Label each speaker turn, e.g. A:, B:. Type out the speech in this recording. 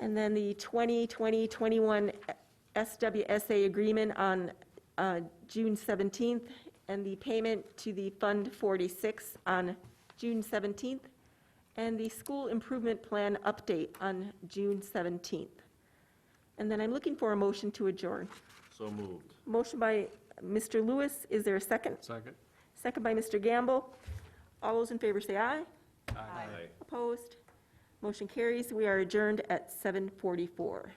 A: And then the 2020-21 SWSA agreement on uh, June 17th, and the payment to the Fund 46 on June 17th, and the school improvement plan update on June 17th. And then I'm looking for a motion to adjourn.
B: So moved.
A: Motion by Mr. Lewis, is there a second?
B: Second?
A: Second by Mr. Gamble. All those in favor say aye.
B: Aye.
A: Opposed? Motion carries. We are adjourned at 7:44.